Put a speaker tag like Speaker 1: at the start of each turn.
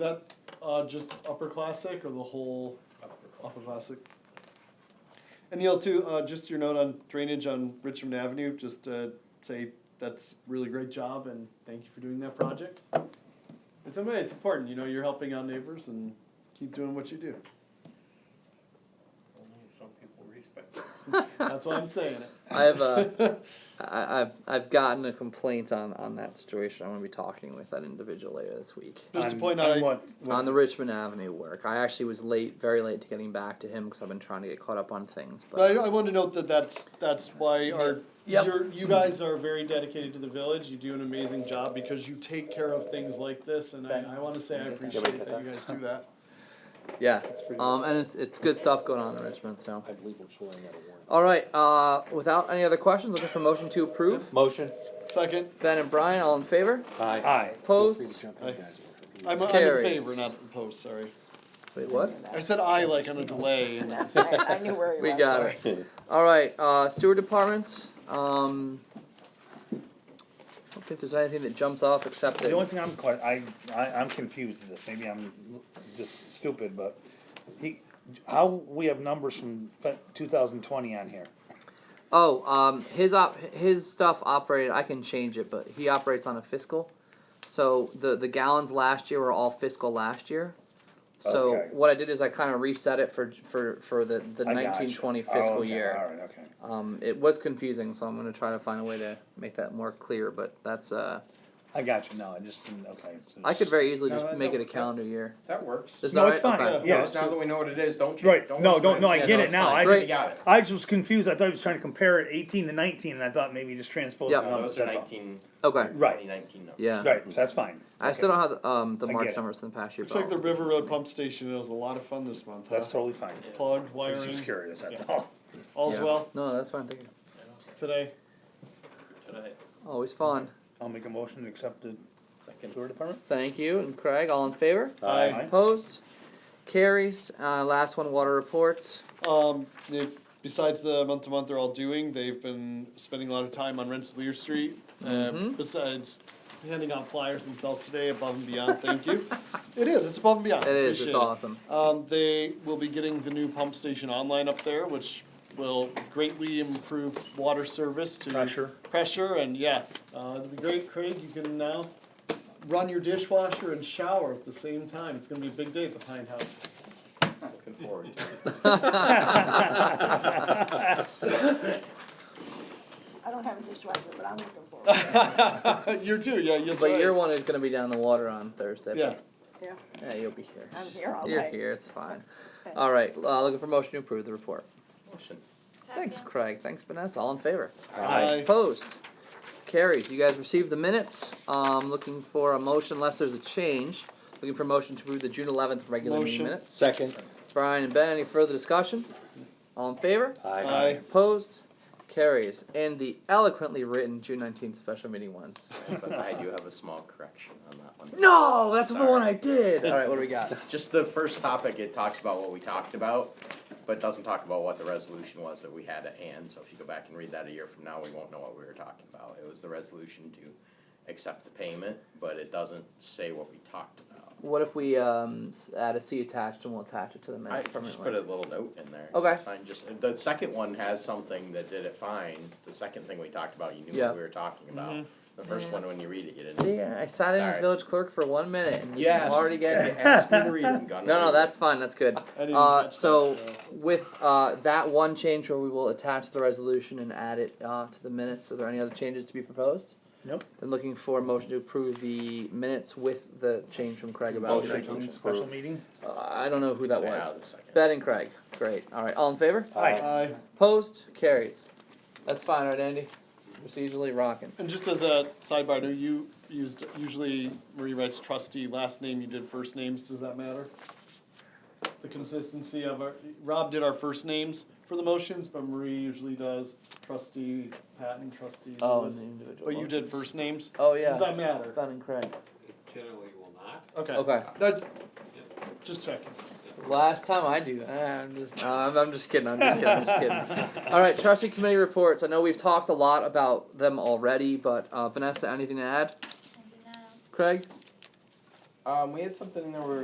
Speaker 1: that uh, just upper classic or the whole upper classic? And Neil, too, uh, just your note on drainage on Richmond Avenue, just uh, say that's really great job and thank you for doing that project. It's a it's important, you know, you're helping out neighbors and keep doing what you do.
Speaker 2: Only some people respect. it.
Speaker 1: That's why I'm saying it.
Speaker 3: I have a, I, I've I've gotten a complaint on on that situation. I'm gonna be talking with that individual later this week
Speaker 1: Just to
Speaker 2: On-
Speaker 1: point
Speaker 2: on
Speaker 1: out, I-
Speaker 2: what-
Speaker 3: on the Richmond Avenue work. I actually was late, very late to getting back to him because I've been trying to get caught up on things.
Speaker 1: But
Speaker 3: But
Speaker 1: I, I want to note that that's, that's why our,
Speaker 3: Yep.
Speaker 1: you're, you guys are very dedicated to the village, you do an amazing job because you take care of things like this, and I, I want to say I appreciate that you guys do that.
Speaker 3: yeah,
Speaker 1: It's pretty
Speaker 3: um, and it's it's good stuff going on in Richmond. So
Speaker 4: I believe we're showing that a warrant.
Speaker 3: all right, uh, without any other questions, looking for motion to approve.
Speaker 4: Motion?
Speaker 1: Second,
Speaker 3: Ben and Brian, all in favor?
Speaker 2: Aye.
Speaker 4: Aye. Feel free to
Speaker 3: Opposed?
Speaker 4: jump in, guys.
Speaker 1: I'm, I'm in
Speaker 3: Carries.
Speaker 1: favor, not opposed, sorry.
Speaker 3: Wait, what?
Speaker 1: I said I like on a delay, and
Speaker 5: That's right. I knew where he
Speaker 3: We
Speaker 5: was.
Speaker 3: got
Speaker 5: sorry.
Speaker 3: it. All right, uh, sewer departments. Um, I don't think there's anything that jumps off except that.
Speaker 2: The only thing I'm quite, I, I, I'm confused with this, maybe I'm just stupid, but he, how, we have numbers from two thousand twenty on here.
Speaker 3: Oh, um, his op, his stuff operated. I can change it, but he operates on a fiscal. So the the gallons last year were all fiscal last year. So
Speaker 2: Okay.
Speaker 3: what I did is I kind of reset it for for for the the
Speaker 2: I gotcha.
Speaker 3: nineteen twenty
Speaker 2: Oh,
Speaker 3: fiscal
Speaker 2: okay,
Speaker 3: year.
Speaker 2: Alright, okay.
Speaker 3: Um, it was confusing, so I'm gonna try to find a way to make that more clear. But that's uh,
Speaker 2: I got you, no, I just, didn't- okay. so
Speaker 3: I could very easily
Speaker 6: No,
Speaker 3: just
Speaker 6: that
Speaker 3: make it
Speaker 6: don't-
Speaker 3: a calendar year.
Speaker 6: That works.
Speaker 3: Is
Speaker 2: No,
Speaker 3: that
Speaker 2: it's
Speaker 3: right?
Speaker 2: fine,
Speaker 3: Okay.
Speaker 2: yeah.
Speaker 6: Now that we know what it is, don't you?
Speaker 2: Right, no,
Speaker 6: waste
Speaker 2: don't, no,
Speaker 6: time.
Speaker 2: I
Speaker 3: Yeah,
Speaker 2: get
Speaker 3: no,
Speaker 2: it
Speaker 3: it's
Speaker 2: now,
Speaker 3: fine.
Speaker 2: I
Speaker 6: Great.
Speaker 2: just,
Speaker 6: Got it.
Speaker 2: I just was confused, I thought he was trying to compare eighteen to nineteen, and I thought maybe just transpose the
Speaker 3: Yep.
Speaker 6: No,
Speaker 2: numbers,
Speaker 6: those are
Speaker 2: that's all.
Speaker 6: nineteen,
Speaker 3: Okay.
Speaker 2: Right,
Speaker 6: twenty nineteen numbers.
Speaker 3: Yeah.
Speaker 2: right, so that's fine.
Speaker 3: I still don't have um, the
Speaker 2: I
Speaker 3: March
Speaker 2: get it.
Speaker 3: numbers in the past year.
Speaker 1: looks
Speaker 3: but
Speaker 1: like the
Speaker 3: I'll-
Speaker 1: River Road Pump Station was a lot of fun this month, huh?
Speaker 2: That's totally fine,
Speaker 1: Plugged,
Speaker 2: I
Speaker 1: wiring,
Speaker 2: was just curious, that's
Speaker 1: Yeah.
Speaker 2: all.
Speaker 1: all's
Speaker 3: yeah.
Speaker 1: well
Speaker 3: No, that's fine. Thank you.
Speaker 1: today.
Speaker 6: Today.
Speaker 3: Always fun.
Speaker 2: I'll make a motion to accept the
Speaker 6: Second.
Speaker 2: sewer department.
Speaker 3: Thank you and Craig. All in favor?
Speaker 1: Aye.
Speaker 2: Aye.
Speaker 3: Opposed? Carries. Uh, last one, water reports.
Speaker 1: Um, they- besides the month to month they're all doing, they've been spending a lot of time on Rensselaer Street. Um,
Speaker 3: Mhm.
Speaker 1: besides handing out flyers themselves today, above and beyond, thank you. It is, it's above and beyond.
Speaker 3: It is. It's
Speaker 1: Appreciate it.
Speaker 3: awesome.
Speaker 1: Um, they will be getting the new pump station online up there, which will greatly improve water service to
Speaker 2: Pressure.
Speaker 1: pressure and yeah, uh, it'll be great. Craig, you can now run your dishwasher and shower at the same time. It's gonna be a big day at the Pine House.
Speaker 6: Looking forward to it.
Speaker 5: I don't have a dishwasher, but I'm looking forward. to it.
Speaker 1: you too, yeah, that's
Speaker 3: But
Speaker 1: right.
Speaker 3: your one is going to be down the water on Thursday.
Speaker 1: Yeah,
Speaker 5: Yeah,
Speaker 3: But, yeah, you'll be here.
Speaker 5: I'm here all
Speaker 3: You're
Speaker 5: night.
Speaker 3: here. It's fine.
Speaker 5: Okay.
Speaker 3: All right. Uh, looking for motion to approve the report.
Speaker 6: Motion.
Speaker 3: Thanks, Craig. Thanks, Vanessa. All in favor?
Speaker 1: Aye.
Speaker 3: Opposed? Carries. You guys received the minutes. Um, looking for a motion, unless there's a change. Looking for a motion to approve the June 11th regular
Speaker 1: Motion.
Speaker 3: meeting minutes.
Speaker 4: Second?
Speaker 3: Brian and Ben, any further discussion? All in favor?
Speaker 1: aye.
Speaker 3: Opposed? Carries. And the eloquently written June nineteenth special meeting ones.
Speaker 6: But I do have a small correction on that one.
Speaker 3: No, that's the
Speaker 6: Sorry.
Speaker 3: one I did. All right, what do we got?
Speaker 6: Just the first topic, it talks about what we talked about, but doesn't talk about what the resolution was that we had at hand. So if you go back and read that a year from now, we won't know what we were talking about. It was the resolution to accept the payment, but it doesn't say what we talked about.
Speaker 3: What if we um, s- add a C attached and we'll attach it to the
Speaker 6: I
Speaker 3: minutes
Speaker 6: just put a
Speaker 3: permanently?
Speaker 6: little note in there.
Speaker 3: Okay.
Speaker 6: It's Fine, just, the second one has something that did it fine, the second thing we talked about, you knew
Speaker 3: Yeah.
Speaker 6: what we were talking about. The first one, when you read it, you didn't.
Speaker 3: See, I sat in as
Speaker 6: Sorry.
Speaker 3: village clerk for one minute and you
Speaker 6: Yes.
Speaker 3: already
Speaker 6: You
Speaker 3: get.
Speaker 6: asked me to read it, I'm gonna
Speaker 3: No,
Speaker 6: read
Speaker 3: no,
Speaker 6: it.
Speaker 3: that's fine, that's good.
Speaker 1: I didn't
Speaker 3: Uh,
Speaker 1: catch that,
Speaker 3: so with uh, that one change where we will attach the resolution and add it uh, to the minutes, are there any other changes to be proposed?
Speaker 2: Nope.
Speaker 3: Then looking for a motion to approve the minutes with the change from Craig about.
Speaker 4: Motion.
Speaker 3: Uh,
Speaker 2: Special meeting?
Speaker 3: I don't know who that
Speaker 6: Say
Speaker 3: was.
Speaker 6: out in a second.
Speaker 3: Ben and Craig, great, alright, all in favor?
Speaker 2: Aye.
Speaker 1: Aye.
Speaker 3: Opposed, carries. That's fine, right Andy? Procedurally rocking.
Speaker 1: And just as a sidebar, I know you used, usually Marie writes trustee, last name, you did first names, does that matter? The consistency of our, Rob did our first names for the motions, but Marie usually does trustee Patton, trustee
Speaker 3: Oh, and the
Speaker 1: Lewis.
Speaker 3: individual.
Speaker 1: But you did
Speaker 3: motions.
Speaker 1: first names,
Speaker 3: Oh,
Speaker 1: does
Speaker 3: yeah,
Speaker 1: that matter?
Speaker 3: Ben and Craig,
Speaker 7: Generally will not.
Speaker 1: Okay,
Speaker 3: okay.
Speaker 1: that's, just checking.
Speaker 3: Last time I do, that, I'm just, no, I'm, I'm just kidding. I'm just kidding. I'm just kidding. All right, trustee committee reports. I know we've talked a lot about them already, but uh, Vanessa, anything to add? Craig,
Speaker 6: Uh,
Speaker 1: Um, we had something in there where